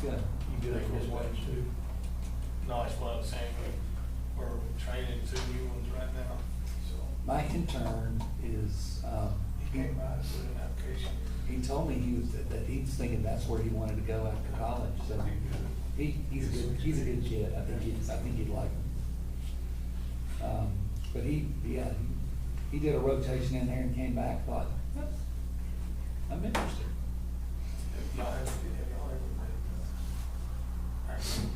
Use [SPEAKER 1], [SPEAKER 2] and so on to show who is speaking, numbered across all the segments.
[SPEAKER 1] Good.
[SPEAKER 2] You good with what you do?
[SPEAKER 3] No, it's what I was saying, we- we're training two new ones right now, so
[SPEAKER 1] My intern is, um,
[SPEAKER 3] he
[SPEAKER 1] he,
[SPEAKER 3] came by and put an application.
[SPEAKER 1] he told me he was, that he was thinking that's where he wanted to go after college, so he, he's a good, he's a good kid, I think he's, I think he'd like him. Um, but he, yeah, he, he did a rotation in there and came back, thought, "That's- I'm interested.
[SPEAKER 3] If y'all ever, if y'all ever met, uh, our deputies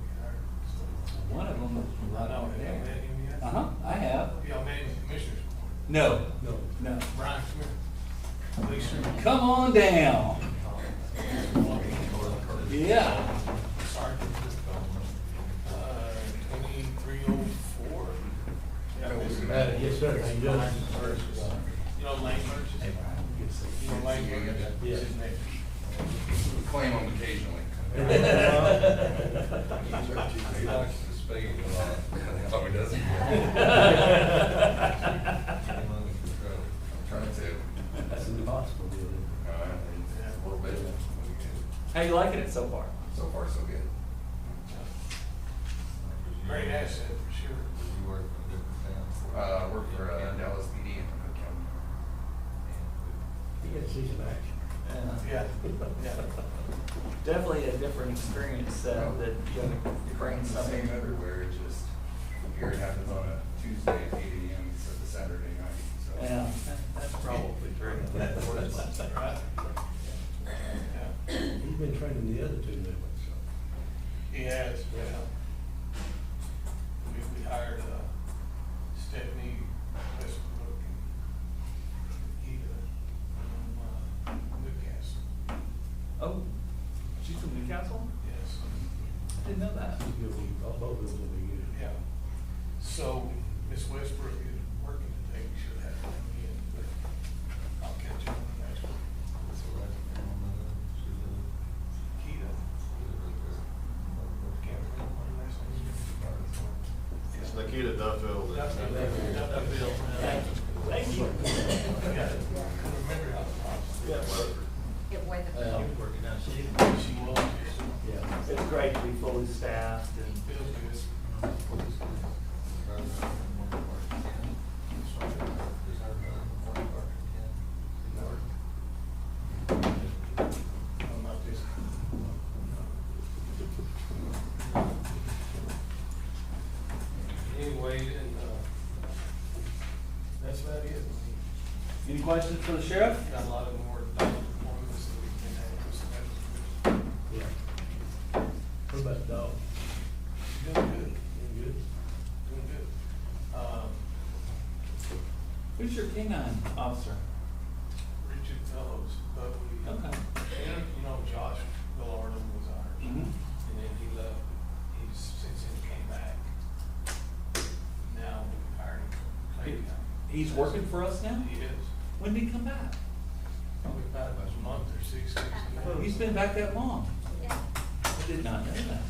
[SPEAKER 3] we hired, so.
[SPEAKER 1] One of them was
[SPEAKER 3] I
[SPEAKER 1] right
[SPEAKER 3] know,
[SPEAKER 1] over
[SPEAKER 3] have y'all met
[SPEAKER 1] there.
[SPEAKER 3] him yet?
[SPEAKER 1] Uh-huh, I have.
[SPEAKER 3] Have Y'all met him in Commissioners Court,
[SPEAKER 1] No,
[SPEAKER 2] No.
[SPEAKER 1] no.
[SPEAKER 3] Brian Smith, Lee Sherman.
[SPEAKER 1] Come on down.
[SPEAKER 3] Oh,
[SPEAKER 1] Yeah.
[SPEAKER 3] Sergeant, uh, twenty-three oh four.
[SPEAKER 2] Uh, yes, sir, he does.
[SPEAKER 3] You know, Lane Merchant, you know, Lane Merchant,
[SPEAKER 2] Yeah.
[SPEAKER 3] He's his name.
[SPEAKER 4] Claim them occasionally. He likes to speak a lot. That's all he does. I'm trying to.
[SPEAKER 2] That's impossible, really.
[SPEAKER 4] Uh, A little bit.
[SPEAKER 5] How you liking it so far?
[SPEAKER 4] So far, so good.
[SPEAKER 3] Great asset, for sure.
[SPEAKER 4] You work for different Uh, I work for uh, Dallas PD in Cook County.
[SPEAKER 2] He gets season action.
[SPEAKER 3] Yeah, yeah.
[SPEAKER 5] Definitely a different experience uh, that you
[SPEAKER 4] It
[SPEAKER 5] have bringing
[SPEAKER 4] rains the
[SPEAKER 5] something.
[SPEAKER 4] same everywhere, it just, here it happens on a Tuesday at eight AM instead of Saturday night, so.
[SPEAKER 1] Yeah.
[SPEAKER 5] That's probably true.
[SPEAKER 3] Right. Yeah.
[SPEAKER 2] He's been training the other two new ones, so.
[SPEAKER 3] He has, yeah. We, we hired, uh, Stephanie Westbrook and Eva from, uh, Newcastle.
[SPEAKER 5] Oh, she's from Newcastle?
[SPEAKER 3] Yes,
[SPEAKER 5] I didn't know that.
[SPEAKER 2] He's gonna be, all both of them will be good.
[SPEAKER 3] yeah. So Miss Westbrook is working today. We should have her in, but I'll catch up with next week. Keita, can't remember her last name.
[SPEAKER 6] It's Nikita Duffield. that-
[SPEAKER 3] That's Bill.
[SPEAKER 5] Thank you.
[SPEAKER 3] Yeah, remember how
[SPEAKER 5] Yeah.
[SPEAKER 7] It was.
[SPEAKER 3] she was.
[SPEAKER 2] Yeah.
[SPEAKER 5] It's great to be fully staffed and
[SPEAKER 3] Bill's good. I'm not just. Anyway, and, uh, that's about it.
[SPEAKER 1] Any questions for the sheriff?
[SPEAKER 3] We Got a lot of more performance that we can have, so that's
[SPEAKER 2] Yeah. What about dog?
[SPEAKER 3] good. Doing good,
[SPEAKER 2] Doing good?
[SPEAKER 3] doing good. Um,
[SPEAKER 1] Who's your canine officer?
[SPEAKER 3] Richard Fellows, but we.
[SPEAKER 1] Okay.
[SPEAKER 3] And, you know, Josh Gallardo was ours.
[SPEAKER 1] Mhm.
[SPEAKER 3] And then he left, he's, since he came back, now we hired him for Clay County.
[SPEAKER 1] He's working for us now?
[SPEAKER 3] He is,
[SPEAKER 1] When did he come back?
[SPEAKER 3] probably about a month or six weeks ago.
[SPEAKER 1] He's been back that long?
[SPEAKER 7] Yeah.
[SPEAKER 1] I did not know that.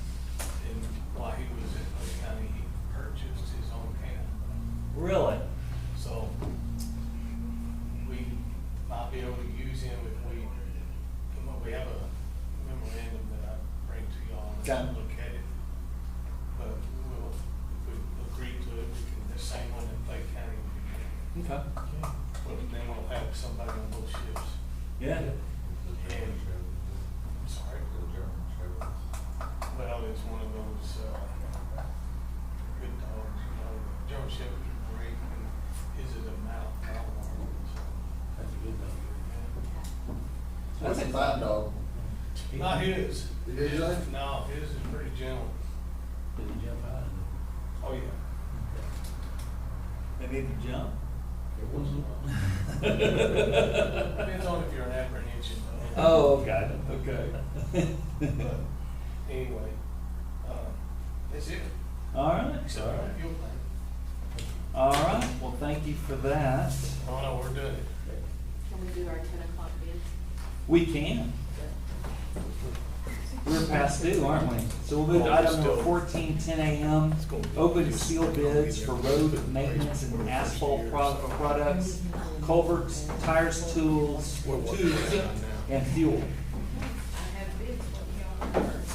[SPEAKER 3] And while he was in Clay County, he purchased his own camp.
[SPEAKER 1] Really?
[SPEAKER 3] So we might be able to use him if we, come up- we have a memorandum that I bring to y'all
[SPEAKER 1] Okay.
[SPEAKER 3] and look at it. But we'll, if we agree to it, we can, the same one in Clay County. we can-
[SPEAKER 1] Okay.
[SPEAKER 3] But then we'll have somebody on both ships.
[SPEAKER 1] Yeah.
[SPEAKER 3] And, I'm sorry, well, it's one of those, uh, good dogs, you know, German Shepherd's are great and his is a mouth, mouth warmer, so.
[SPEAKER 2] That's a good dog.
[SPEAKER 1] That's a
[SPEAKER 6] Five dog.
[SPEAKER 3] Not his.
[SPEAKER 6] Did you say?
[SPEAKER 3] No, his is pretty gentle.
[SPEAKER 2] Did he jump high?
[SPEAKER 3] Oh, yeah.
[SPEAKER 1] They need to jump.
[SPEAKER 2] It wasn't.
[SPEAKER 3] Depends on if you're an apprehension though.
[SPEAKER 1] Oh, okay, okay.
[SPEAKER 3] But anyway, uh, that's it.
[SPEAKER 1] All right.
[SPEAKER 3] Except for the fuel plant.
[SPEAKER 1] All right, well, thank you for that.
[SPEAKER 3] Oh, no, we're doing it.
[SPEAKER 7] Can we do our ten o'clock bids?
[SPEAKER 1] We can. We're past due, aren't we? So we'll move to item number fourteen, ten AM. Open sealed bids for road maintenance and asphalt pro- products, culverts, tires, tools, tubes, and fuel.
[SPEAKER 7] I have bids, what do y'all first.